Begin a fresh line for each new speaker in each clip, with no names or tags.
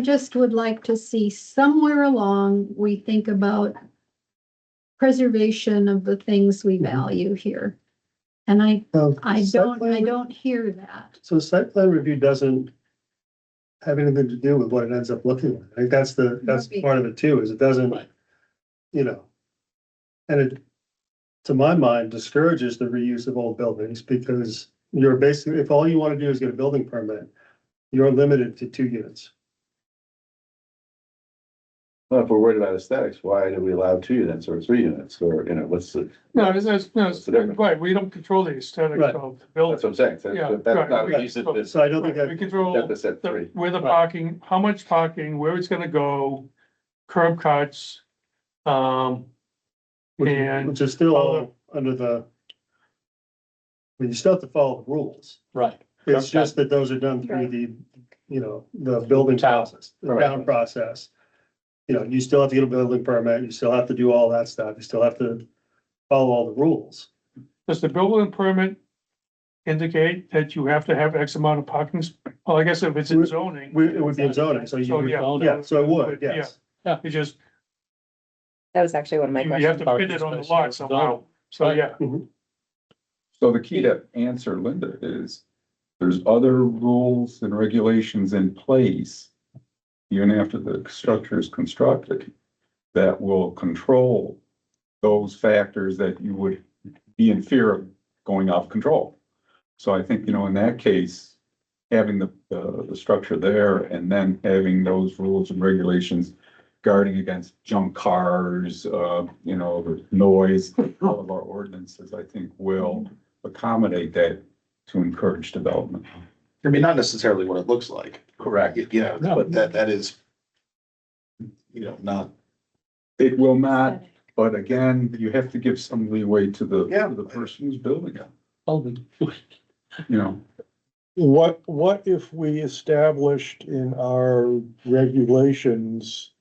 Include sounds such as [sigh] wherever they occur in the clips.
just would like to see somewhere along, we think about preservation of the things we value here. And I,
Now,
I
site
don't,
plan
I
re-
don't hear that.
So the site plan review doesn't have anything to do with what it ends up looking like. I think that's the, that's
Right.
part of it too, is it doesn't, you know. And it, to my mind, discourages the reuse of old buildings because you're basically, if all you want to do is get a building permit, you're limited to two units.
Well, if we're worried about aesthetics, why do we allow two units or three units or, you know, what's the,
No, it's, it's, no,
It's
it's,
different.
right, we don't control the aesthetics
Right.
of the
that's
building.
what I'm saying. so
Yeah,
that- That's
right,
not a
right.
use of this,
So I don't think
Right, We
that,
control
that's at
the,
three.
where the
Right.
parking, how much parking, where it's gonna go, curb cuts. Um,
which-
And-
which is still all under the. But you still have to follow the rules.
Right,
It's just that those are done through
Right.
the, you know, the building
Town.
process, the
Right.
town process. You know, you still have to get a building permit, you still have to do all that stuff, you still have to follow all the rules.
does the building permit indicate that you have to have X amount of parking? sp- Well, I guess if it's in
We-
zoning,
We, it would be in zoning, so you
so
would,
yeah.
yeah, so it would, yes.
You just,
That was actually one of my
you have
questions.
to fit it on the lot somehow, so yeah.
So the key to answer Linda is, there's other rules and regulations in place. Even after the structure is constructed, that will control those factors that you would be in fear of going off control. So I think, you know, in that case, having the, the, the structure there and then having those rules and regulations guarding against junk cars, uh, you know, the noise, all of our ordinances, I think will accommodate that to encourage development.
I mean, not necessarily what it looks like. Correct. You know,
No.
but that, that is, you know, not.
It will not, but again, you have to give some leeway to the,
Yeah.
to the person who's building it,
Alden.
you know.
What, what if we established in our regulations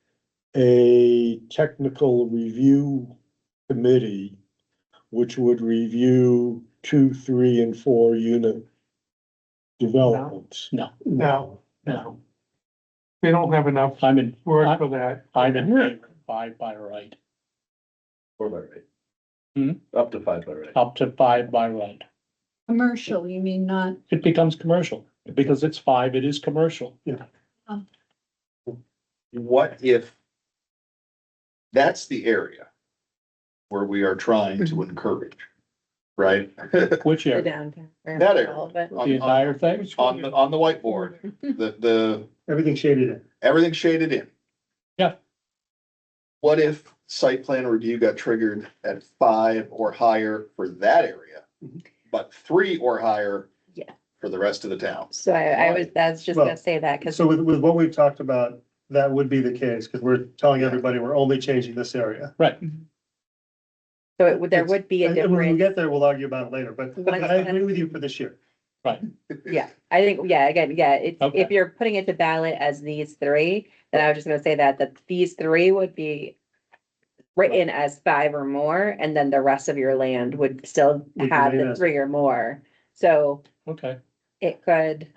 a technical review committee? Which would review two, three, and four unit developments?
No,
No,
we don't have enough
I'm in,
work for that.
I'm in favor of five by right,
Four by right.
Hmm?
Up to five by right.
up to five by right.
Commercial, you mean not,
It becomes commercial, because it's five, it is commercial.
what if that's the area where we are trying to encourage, right?
Which
[laughs]
The
area,
downtown. or
That area.
all of it.
On-
the entire thing?
On, the on the whiteboard, the, the,
Everything shaded in.
everything shaded in.
Yeah.
What if site plan review got triggered at five or higher for that area, but three or higher
Yeah.
for the rest of the town?
So I, I was, that's just
Well,
gonna say that, cause
So with, with what we've talked about, that would be the case, because we're telling everybody we're only changing this area.
so it would, there would be a
And and when we
difference.
get there, we'll argue about it later, but but I agree with you for this year.
Yeah, I think, yeah, again, yeah, if,
Okay.
if you're putting it to ballot as these three, then I was just gonna say that, that these three would be written as five or more, and then the rest of your land would still
Would
have
remain
the
as-
three or more. So
Okay,
it could,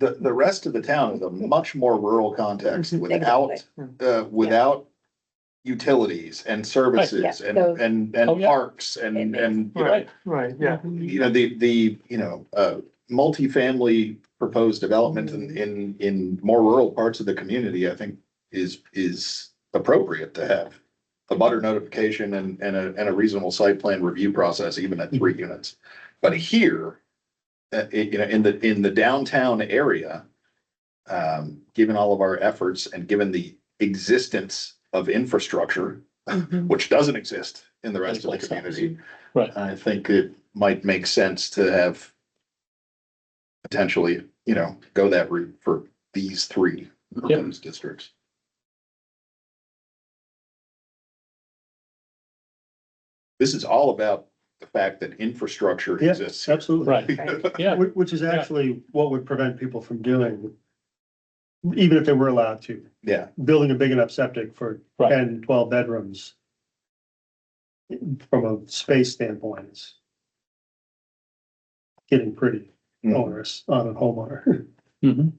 The, the rest of the town is a much more rural context
Mhm.
without, uh, without utilities and services
yeah,
and,
so-
and,
Oh,
and
yeah.
parks and, and, you know,
Right, right, yeah.
you know, the, the, you know, uh, multifamily proposed development
Mm.
in, in, in more rural parts of the community, I think is, is appropriate to have a butter notification and, and a, and a reasonable site plan review process, even at three units. But here, uh, i- you know, in the, in the downtown area, um, given all of our efforts and given the existence of infrastructure, which doesn't exist in the rest of the
Makes sense.
community.
Right.
I think it might make sense to have potentially, you know, go that route for these three proposed districts. This is all about the fact that infrastructure
Yeah,
exists.
Absolutely.
right, yeah,
Which, which is actually what would prevent people from doing, even if they were allowed to,
Yeah,
building a big enough septic for
Right.
10, 12 bedrooms. From a space standpoint, it's getting pretty
Mm.
onerous on a homeowner. [laughs]
mhm,